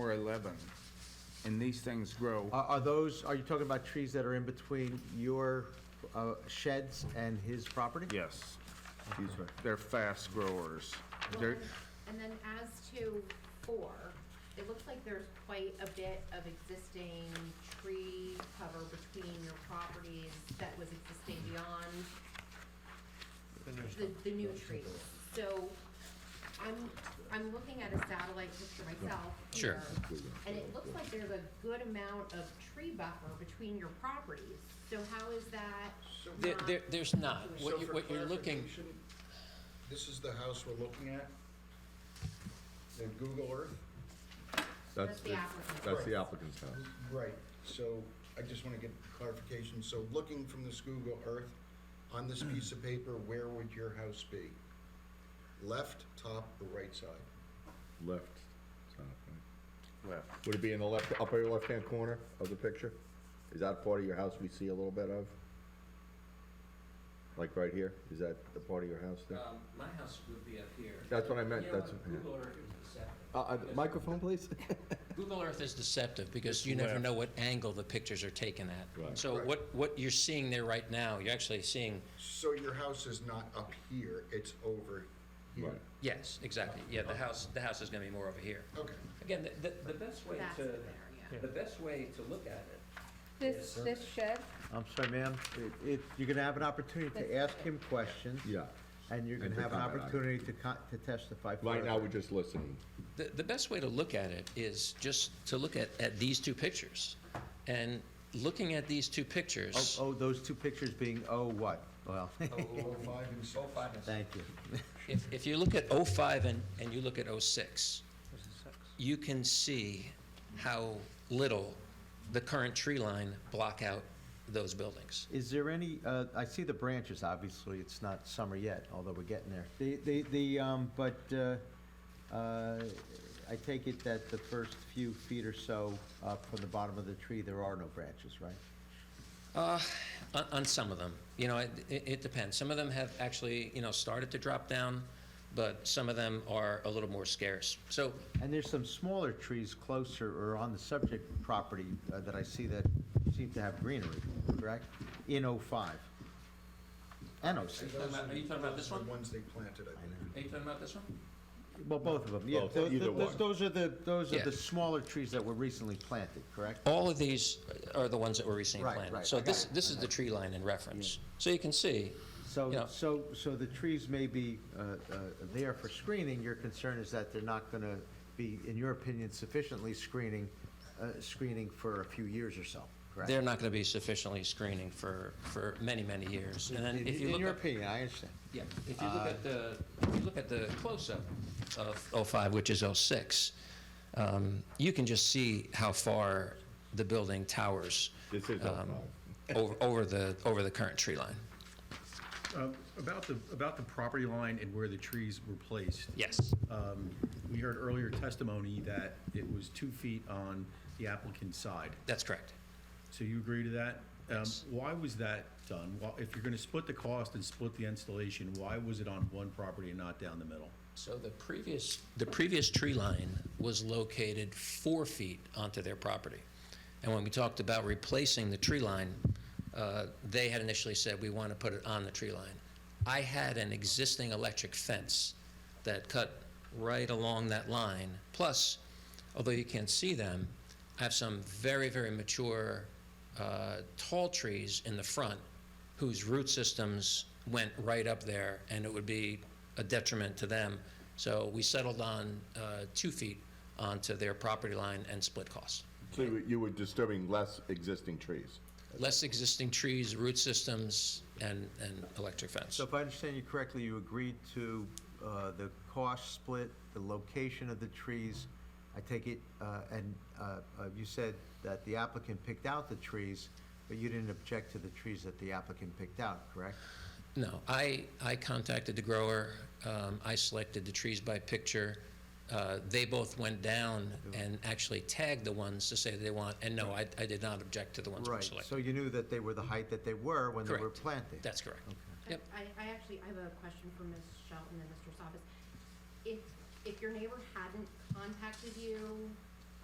eleven, and these things grow. Are are those, are you talking about trees that are in between your uh, sheds and his property? Yes. They're fast growers. Well, They're, and- And then as to four, it looks like there's quite a bit of existing tree cover between your properties that was existing beyond the, the new trees. So I'm, I'm looking at a satellite picture myself Sure. here. And it looks like there's a good amount of tree buffer between your properties. So how is that There, not? there, there's not. So What you, for what you're looking, clarification, This is the house we're looking at, the Google Earth. That's the applicant. That's the applicant's house. Right, so I just want to get clarification, so looking from this Google Earth, on this piece of paper, where would your house be? Left, top, or right side? Left. side, right? left. Would it be in the left, upper left-hand corner of the picture? Is that part of your house we see a little bit of? Like right here? Is that the part of your house there? Um, my house would be up here. That's what I meant, You know that's- what? yeah. Google Earth is deceptive. Uh, uh, microphone, please? Google Earth is deceptive because you never know what angle the pictures are taken Right. at. So what, what you're seeing there right now, you're actually seeing, So your house is not up here, it's over here? Right. yes, exactly. Yeah, the house, the house is gonna be more over here. Okay, Again, the, the, the best way That's to, there, yeah. the best way to look at it, This, this shed, I'm sorry, ma'am, It- it- you're going to have an opportunity to ask him questions. Yeah. And you're going And to to have an comment on it. opportunity to co- to testify. Right now, further. we're just listening. The, the best way to look at it is just to look at, at these two pictures. And looking at these two pictures, Oh, oh, those two pictures being, oh, what? Well, oh, five and six. thank you. if, if you look at '05 and, and you look at '06, you can see how little the current tree line block out those buildings. Is there any, uh, I see the branches, obviously, it's not summer yet, although we're getting there. The, the, the, um, but uh, uh, I take it that the first few feet or so up from the bottom of the tree, there are no branches, right? Uh, on, on some of them, you know, it, it it depends. Some of them have actually, you know, started to drop down, but some of them are a little more scarce. So And there's some smaller trees closer or on the subject property uh, that I see that seem to have greenery, correct? In '05 and '06, talking about- are you talking about this one? The ones they planted, I believe. are you talking about this one? well, both of them, yeah. Both, either Those- one. Those are the, those are Yeah. the smaller trees that were recently planted, correct? all of these are the ones that were recently Right, planted. right, So I got this, it, this is the tree line in reference. So you can see, So, Yeah. so, so the trees may be uh, uh, there for screening, your concern is that they're not going to be, in your opinion, sufficiently screening, uh, screening for a few years or so, correct? they're not going to be sufficiently screening for, for many, many years. And then In if you look in your at- opinion, uh, I understand. Yeah, if you look at the, if you look at the close-up of 05, which is 06, um, you can just see how far the building towers This is um, 05. over, over the, over the current tree line. Uh, About the, about the property line and where the trees were placed, Yes. um, we heard earlier testimony that it was two feet on the applicant's side. That's correct. So you agree to that? Um, Yes. Why was that done? Why- If you're going to split the cost and split the installation, why was it on one property and not down the middle? So the previous, the previous tree line was located four feet onto their property. And when we talked about replacing the tree line, uh, they had initially said, we want to put it on the tree line. I had an existing electric fence that cut right along that line. Plus, although you can't see them, I have some very, very mature uh, tall trees in the front whose root systems went right up there, and it would be a detriment to them. So we settled on uh, two feet onto their property line and split costs. So you were- you were disturbing less existing trees? Less existing trees, root systems, and, and electric fence. So if I understand you correctly, you agreed to uh, the cost split, the location of the trees. I take it, uh, and uh, uh, you said that the applicant picked out the trees, but you didn't object to the trees that the applicant picked out, correct? No, I, I contacted the grower, um, I selected the trees by picture. Uh, they both went down and actually tagged the ones to say they want, and no, I, I did not object to the ones that were Right, selected. so you knew that they were the height that they were when they were Correct. planted? That's correct. I, Yep. I actually, I have a question for Ms. Shelton and Mr. Soffis. If, if your neighbor hadn't contacted you